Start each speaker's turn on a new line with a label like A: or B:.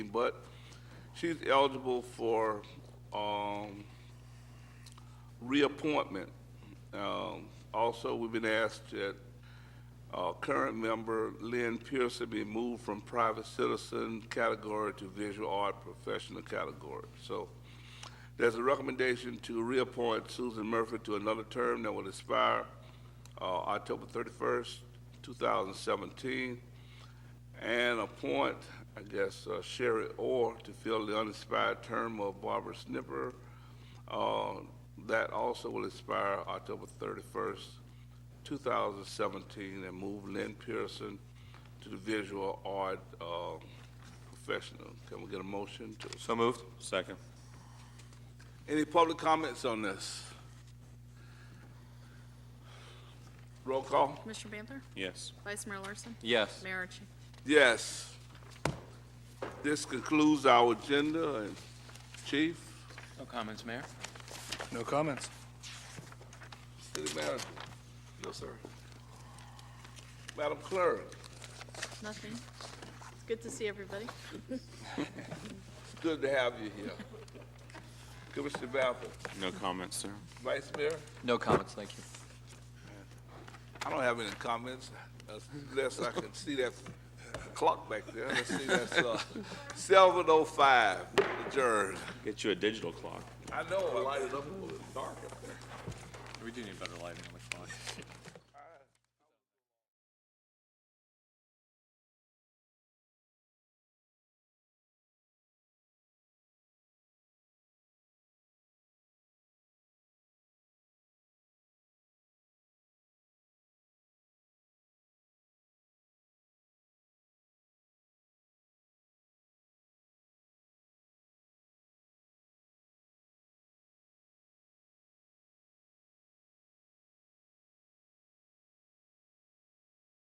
A: but she's eligible for um, reappointment. Um, Also, we've been asked that uh, current member Lynn Pearson be moved from private citizen category to visual art professional category. So there's a recommendation to reappoint Susan Murphy to another term that will expire uh, October 31st, 2017 and appoint, I guess, uh, Sherry Orr to fill the unexpired term of Barbara Snipper. Uh, That also will expire October 31st, 2017, and move Lynn Pearson to the visual art uh, professional. Can we get a motion to?
B: So moved. Second.
A: Any public comments on this? Roll call?
C: Commissioner Banther?
B: Yes.
C: Vice Mayor Larson?
B: Yes.
C: Mayor Archie?
A: Yes. This concludes our agenda, and Chief,
D: No comments, Mayor.
E: No comments.
A: City Manager. No, sir. Madam Clerk,
C: Nothing. It's good to see everybody.
A: it's good to have you here. Commissioner Bapple,
B: No comments, sir.
A: Vice Mayor,
D: No comments, thank you.
A: I don't have any comments unless I can see that clock back there. Let's see, that's uh, 7:05, adjourned.
B: Get you a digital clock.
A: I know, I light it up a little dark up there.
D: We do need better lighting on the clock.